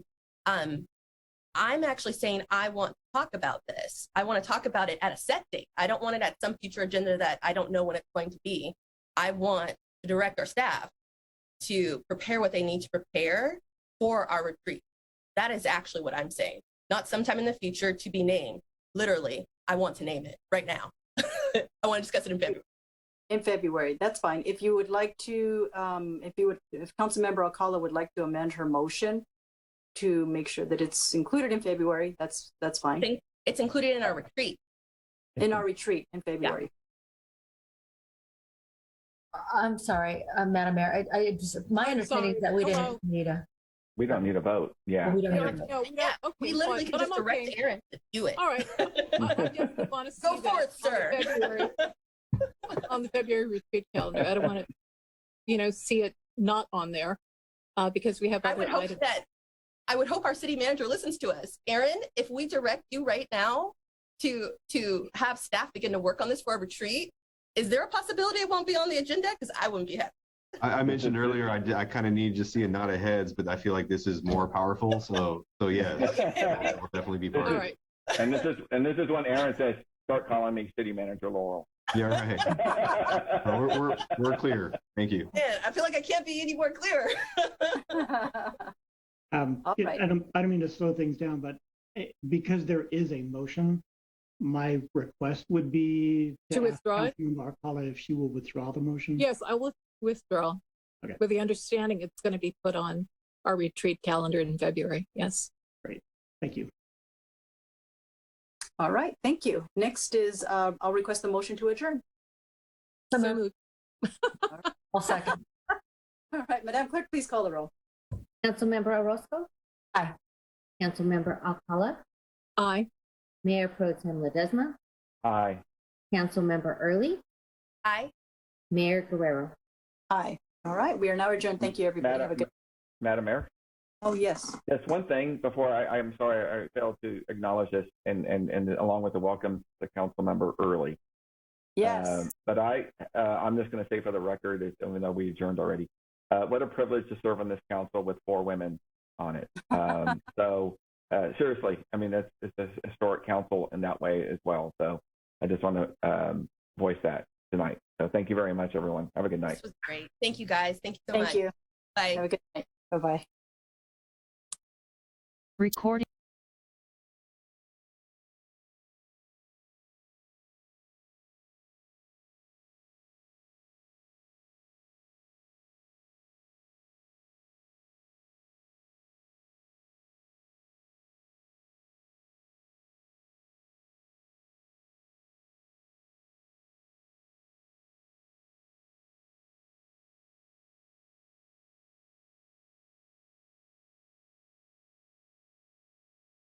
Um, I'm actually saying I want to talk about this. I want to talk about it at a set date. I don't want it at some future agenda that I don't know when it's going to be. I want to direct our staff to prepare what they need to prepare for our retreat. That is actually what I'm saying. Not sometime in the future to be named. Literally, I want to name it right now. I want to discuss it in February. In February, that's fine. If you would like to, um, if you would, if Councilmember Alcala would like to amend her motion to make sure that it's included in February, that's, that's fine. Thank- It's included in our retreat. In our retreat in February. I'm sorry, uh, Madam Mayor, I, I just, my understanding is that we Hello. didn't need a, We don't need a vote, yeah. we don't No, need a I- vote. no, we don't- Yeah, okay, We literally fine, can but just I'm direct okay. Aaron to do it. All right. I I just want to see Go for it, that on the sir. February- On the February retreat calendar. I don't want to, you know, see it not on there uh, because we have I other would hope items. that I would hope our city manager listens to us. Aaron, if we direct you right now to to have staff begin to work on this for a retreat, is there a possibility it won't be on the agenda? Because I wouldn't be happy. I, I mentioned earlier, I, did- I kind of need to see a nod of heads, but I feel like this is more powerful. So, so yes, And it will definitely be part All of it. right. this is, and this is when Aaron says, start calling me city manager Laurel. Yeah, right. No, Oh, We're, we're, we're clear. Thank you. Man, I feel like I can't be any more clear. Um, All it- right. I don't, I don't mean to slow things down, but it- because there is a motion, my request would be To ask withdraw it? Councilmember Alcala if she will withdraw the motion. Yes, I will withdraw Okay. with the understanding it's going to be put on our retreat calendar in February. Yes. Thank you. All right, thank you. Next is, uh, I'll request the motion to adjourn. So So moved. moved. I'll second. All right, Madam Clerk, please call the roll. Councilmember Orozco? Aye. Councilmember Alcala? Aye. Mayor Pro Tem Ledesma? Aye. Councilmember Early? Aye. Mayor Guerrero? Aye. All right, we are now adjourned. Thank you, everybody. Have a Madam, good, Madam Mayor? oh, yes. Yes, one thing before I, I'm sorry, I failed to acknowledge this and, and, and along with the welcome to council member early. Yes. Um, but I, uh, I'm just going to say for the record, is- even though we adjourned already, uh, what a privilege to serve on this council with four women on it. Um, so uh, seriously, I mean, that's it's a historic council in that way as well. So I just want to um, voice that tonight. So thank you very much, everyone. Have a good night. This was great. Thank you guys. Thank you so much. Thank you. Bye. Have a good night. Bye-bye. Recording.